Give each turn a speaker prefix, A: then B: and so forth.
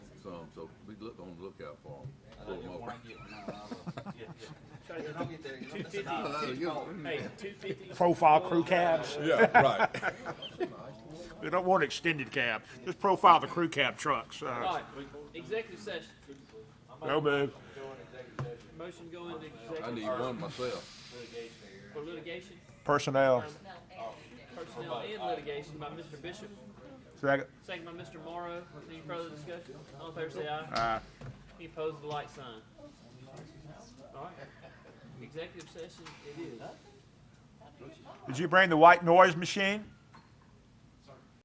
A: so be look, on the lookout for them.
B: I don't get one, get one, no, I will. Yeah, yeah. You don't get there, you don't- that's a dollar.
A: Uh, you-
C: Hey, two fifty.
D: Profile crew cabs.
E: Yeah, right.
D: We don't want extended cab. Just profile the crew cab trucks.
C: All
D: Uh,
C: right, executive session.
D: no move.
C: Motion to go into
A: I
C: executive
A: need one myself.
C: for litigation,
D: Personnel.
C: personnel and litigation by Mr. Bishop.
D: Second.
C: Second by Mr. Morrow. Any further discussion? All in favor say aye.
D: Uh,
C: He opposed the light sign. All right. Executive session it is.
D: did you bring the white noise machine?